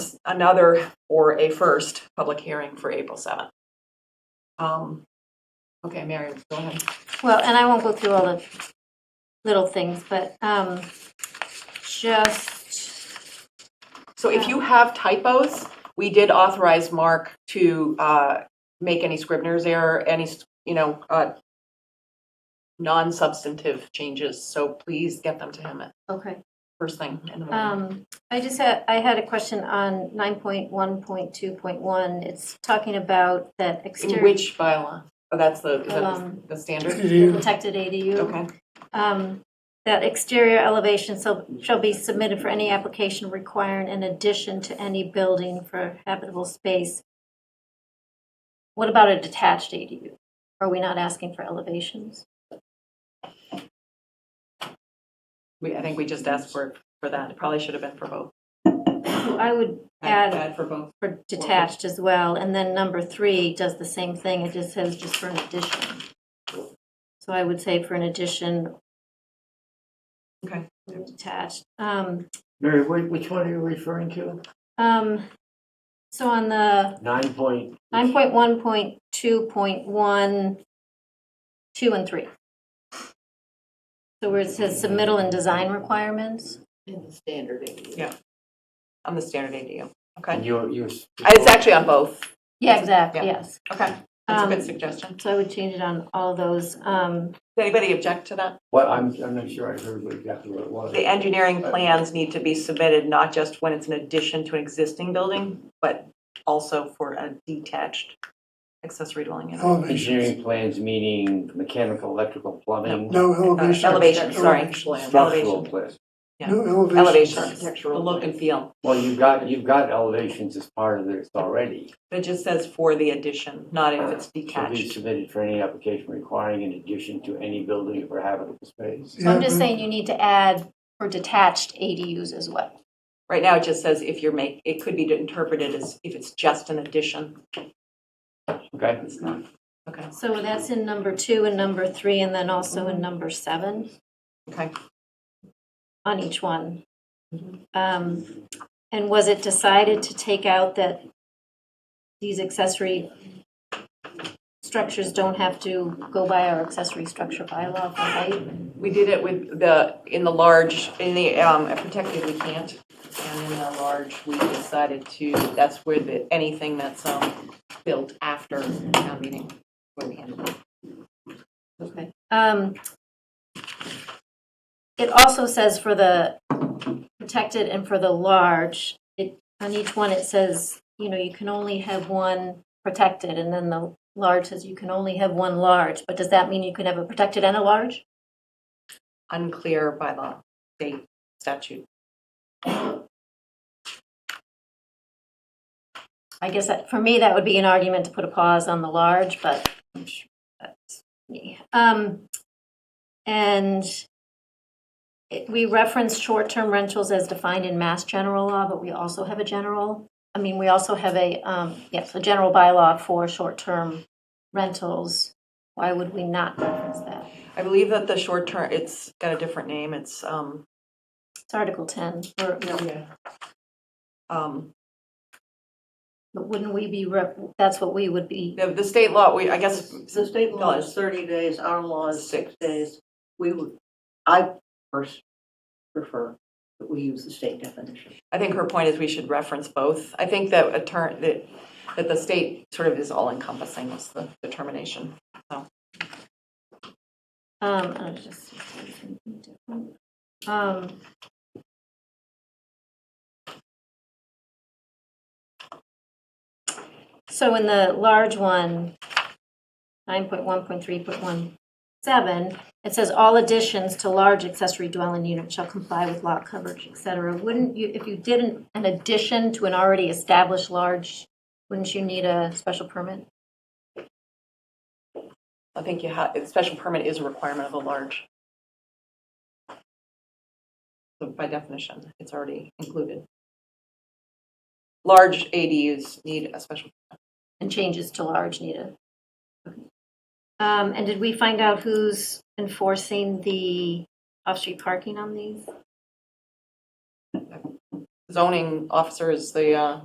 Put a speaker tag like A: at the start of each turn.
A: another or a first public hearing for April 7th. Um, Okay, Mary, go ahead.
B: Well, and I won't go through all the little things, but um, just,
A: So if you have typos, we did authorize Mark to uh, make any Scribner's error, any, you know, uh, non-substantive changes, so please get them to him at
B: okay.
A: first thing in the morning.
B: Um, I just had, I had a question on 9.1.2.1. It's talking about that
A: In
B: exterior
A: which bylaw? Oh, that's the, is
B: Um,
A: that the standard?
B: protected ADU.
A: Okay,
B: Um, That exterior elevation shall shall be submitted for any application requiring an addition to any building for habitable space. What about a detached ADU? Are we not asking for elevations?
A: we, I think we just asked for, for that, it probably should have been for both.
B: I would
A: Add-
B: add
A: add for both.
B: for detached as well, and then number three does the same thing, it just says just for an addition. So I would say for an addition.
A: Okay.
B: Detached. Um,
C: Mary, wh- which one are you referring to?
B: um, so on the
C: Nine point?
B: nine point one point two point one, two and three. So where it says submittal and design requirements,
D: In the standard ADU.
A: Yeah. On the standard ADU,
C: And
A: okay.
C: you're, you're.
A: It's actually on both.
B: yeah, exactly,
A: Yeah.
B: yes,
A: Okay, that's a
B: Um,
A: good suggestion.
B: so I would change it on all those, um,
A: Does anybody object to that?
C: What, I'm, I'm not sure I heard what exactly what it was.
A: The engineering plans need to be submitted not just when it's an addition to an existing building, but also for a detached accessory dwelling unit.
E: Elevations.
C: Engineering plans meaning mechanical, electrical, plumbing,
E: No elevation.
A: Uh, Elevation, sorry.
E: Elevations.
C: Oh, structural
A: Elevation.
C: plans.
A: yeah.
E: No elevation.
A: Elevation, the
D: Architectural
A: look and feel.
C: Well, you've got, you've got elevations as part of this already.
A: It just says for the addition, not if it's
C: Should be
A: detached.
C: submitted for any application requiring an addition to any building or habitable space.
B: so I'm just
E: Yeah,
B: saying you need to add for detached ADUs as well.
A: Right now, it just says if you're make, it could be interpreted as if it's just an addition.
C: Okay?
A: It's not, okay,
B: So that's in number two and number three, and then also in number seven
A: okay.
B: on each one. Um, And was it decided to take out that these accessory structures don't have to go by our accessory structure bylaw for height?
A: We did it with the, in the large, in the um, protected, we can't. And in the large, we decided to, that's where the, anything that's um, built after town meeting. where we ended it.
B: Okay. Um, It also says for the protected and for the large, it, on each one, it says, you know, you can only have one protected, and then the large says you can only have one large, but does that mean you can have a protected and a large?
A: Unclear by the state statute.
B: I guess that, for me, that would be an argument to put a pause on the large, but I'm sure that's me. Um, And it- we reference short-term rentals as defined in Mass General Law, but we also have a general, I mean, we also have a, um, yes, a general bylaw for short-term rentals. Why would we not reference that?
A: I believe that the short term, it's got a different name, it's, um,
B: It's Article 10, or,
A: um,
B: but wouldn't we be, rep- that's what we would be,
A: the, the state law, we, I guess,
D: The state law is thirty days, our law is six days. We would, I first prefer that we use the state definition.
A: I think her point is we should reference both. I think that attorney, that, that the state sort of is all encompassing was the determination.
B: um, I was just, something different. um, So in the large one, 9.1.3.17, it says all additions to large accessory dwelling units shall comply with lot coverage, et cetera. Wouldn't you, if you did an an addition to an already established large, wouldn't you need a special permit?
A: I think you have, special permit is a requirement of a large. So by definition, it's already included. Large ADUs need a special,
B: And changes to large needed. Um, And did we find out who's enforcing the off-street parking on these?
A: zoning officer is the uh,